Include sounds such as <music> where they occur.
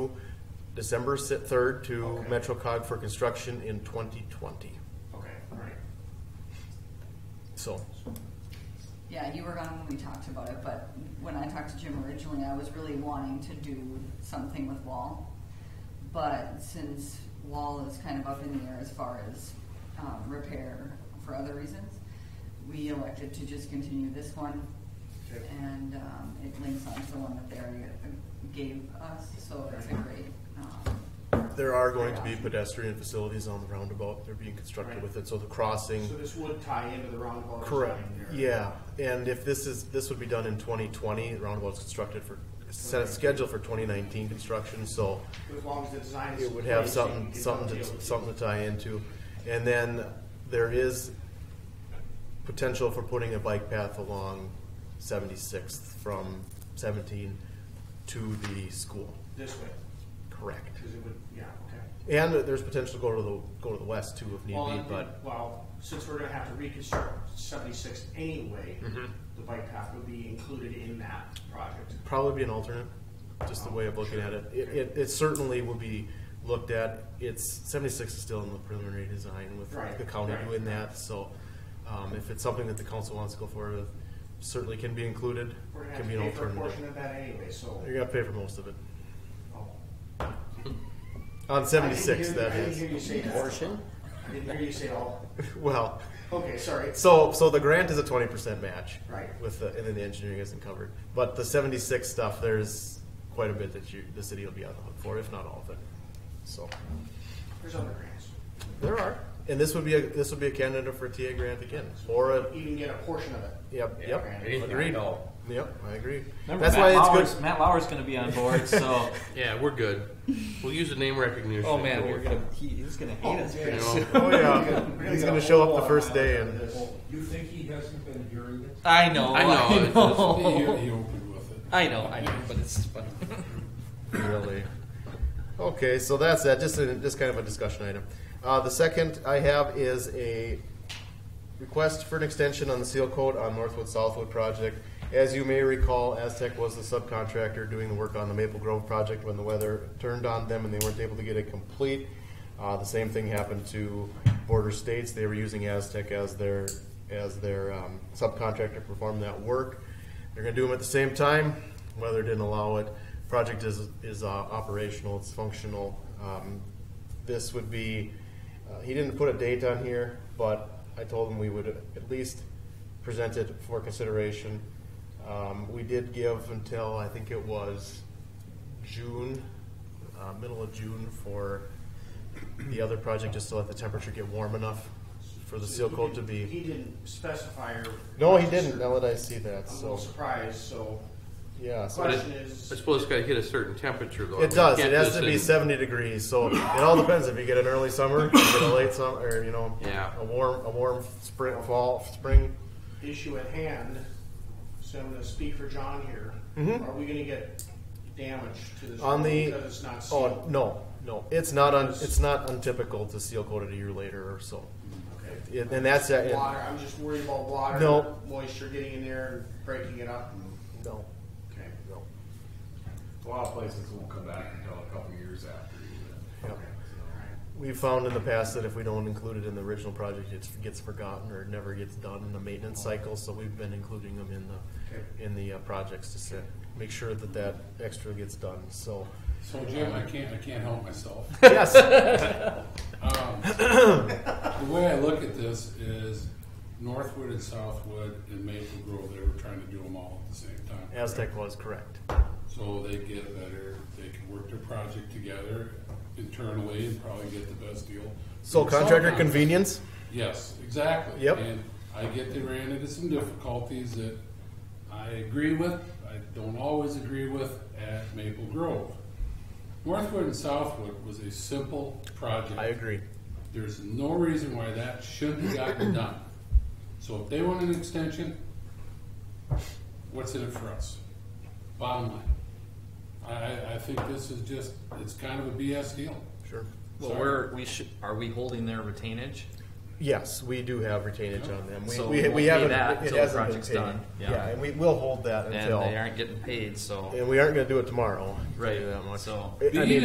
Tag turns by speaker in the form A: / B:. A: December third to
B: Okay.
A: MetroCog for construction in twenty twenty.
B: Okay, all right.
A: So,
C: Yeah, you were gone when we talked about it, but when I talked to Jim originally, I was really wanting to do something with Wall. But since Wall is kind of up in the air as far as um, repair for other reasons, we elected to just continue this one.
B: Okay.
C: And um, it links on to the one that they already gave us, so it's a great, um,
A: there are going to be pedestrian facilities on the roundabout, they're being constructed
B: Right.
A: with it, so the crossing.
B: So this would tie into the roundabout.
A: Mm. Correct,
B: design there.
A: yeah, and if this is, this would be done in twenty twenty, roundabout's constructed for, set, scheduled for twenty nineteen construction, so
B: As long as the design is.
A: it would have
B: in place, you
A: something,
B: can
A: something
B: deal with
A: to,
B: it.
A: something to tie into. And then there is potential for putting a bike path along Seventy-Sixth from Seventeen to the school,
B: This way,
A: correct.
B: because it would, yeah, okay.
A: And there's potential to go to the, go to the west too if need
B: Well,
A: be,
B: and-
A: but
B: Well, since we're gonna have to reconstruct seventy-six anyway,
A: Mm-hmm.
B: the bike path would be included in that project.
A: probably be an alternate, just the way of looking at it. It, it, it certainly will be looked at, it's, seventy-six is still in the preliminary design with
B: Right,
A: the county
B: right.
A: doing that, so, um, if it's something that the council wants to go forward with, certainly can be included,
B: We're gonna have
A: can
B: to
A: be an
B: pay for a portion
A: alternative.
B: of that anyway, so.
A: You're gonna pay for most of it,
B: oh.
A: on
B: I didn't
A: seventy-six,
B: hear-
A: that
B: I didn't
A: is,
B: hear you say Portion? I didn't hear you say all.
A: well,
B: Okay, sorry.
A: so, so the grant is a twenty percent match.
B: Right.
A: With the, and then the engineering isn't covered, but the seventy-six stuff, there's quite a bit that you, the city will be on the hook for, if not all of it, so.
B: There's other grants.
A: There are. And this would be a, this would be a candidate for a TA grant again, or a,
B: You can get a portion of it.
A: yep,
B: Yeah,
A: yep.
B: grant.
D: Anything
A: Agreed.
D: at all.
A: Yep, I agree.
E: Remember,
A: That's why
E: Matt
A: it's
E: Lauer's,
A: good.
E: Matt Lauer's going to be on board, <laughs> so.
D: Yeah, we're good. We'll use the name recognition.
E: oh man, we're gonna, he, he's going to hate us pretty
D: yeah.
A: <laughs>
E: soon.
A: Oh
B: <laughs> We're
A: yeah, he's
B: get
A: gonna
B: a
A: show up
B: whole
A: the
B: lot
A: first
B: out
A: day
B: of
A: and,
B: this.
F: You think he hasn't been hearing it?
E: I know.
D: I know,
E: I
D: it's-
F: He,
E: know.
F: he'll be with it.
E: I know, I know, but it's funny.
A: really. Okay, so that's that, just, a- just kind of a discussion item. Uh, the second I have is a request for an extension on the seal coat on Northwood Southwood project. As you may recall, Aztec was the subcontractor doing the work on the Maple Grove project when the weather turned on them and they weren't able to get it complete. Uh, the same thing happened to Border States. They were using Aztec as their, as their, um, subcontractor to perform that work. They're gonna do them at the same time. Weather didn't allow it. Project is, is, uh, operational, it's functional. Um, this would be, uh, he didn't put a date on here, but I told him we would at least present it for consideration. Um, we did give until, I think it was June, uh, middle of June for the other project, just to let the temperature get warm enough for the seal coat to
B: He
A: be.
B: didn't specify or.
A: No, he didn't, now that I see that,
B: I'm a little
A: so,
B: surprised, so
A: yeah. so-
D: But it,
B: question
D: I
B: is,
D: suppose it's got to hit a certain temperature, though.
A: It does.
D: We
A: It
D: can't
A: has
D: just
A: to be
D: in-
A: 70 degrees. So it all depends if you get an early summer, you get a late summer, or you know,
D: Yeah.
A: a warm, a warm spring, fall, spring.
B: issue at hand, so I'm gonna speak for John here. Are we gonna get damage to this?
A: Mm-hmm. On the
B: Because it's not
A: oh
B: sealed.
A: no, no, it's not un, it's not untypical to seal coat it a year later or so.
B: Okay.
A: It, and that's uh, that.
B: Water, I'm just worried about water.
A: No.
B: Moisture getting in there and breaking it up.
A: no,
B: Okay.
A: no.
G: A lot of places won't come back until a couple years after you.
A: Yep.
B: All right.
A: We've found in the past that if we don't include it in the original project, it gets forgotten or never gets done in the maintenance
B: Oh.
A: cycle, so we've been including them in the, in the uh, projects to set, make sure that that extra gets done,
B: <laughs>
A: so.
F: So Jim, I can't, I can't help myself.
G: <laughs>
A: Yes,
F: The way I look at this is Northwood and Southwood and Maple Grove, they were trying to do them all at the same time.
A: Aztec was correct.
F: So they get better, they can work their project together internally and probably get the best deal.
A: So contractor
F: Sometimes-
A: convenience,
F: Yes, exactly.
A: Yep.
F: And I get they ran into some difficulties that I agree with, I don't always agree with at Maple Grove. Northwood and Southwood was a simple project.
A: I agree.
F: There's no reason why that shouldn't have
A: <clears throat>
F: gotten done. So if they want an extension, what's in it for us? Bottom line. I, I, I think this is just, it's kind of a BS deal.
A: Sure.
E: Well,
F: Sorry.
E: we're, we should, are we holding their retainage?
A: Yes, we do have retainage on them. We,
E: So
A: we,
E: we'll
A: we
E: pay
A: haven't,
E: that
A: it
E: until the
A: hasn't been
E: project's
A: paid.
E: done. Yeah.
A: Yeah, and we will hold that
E: And they
A: until,
E: aren't getting paid, so.
A: and we aren't gonna do it tomorrow. I'll tell
E: Right,
A: you that much.
E: so-
A: I- I mean,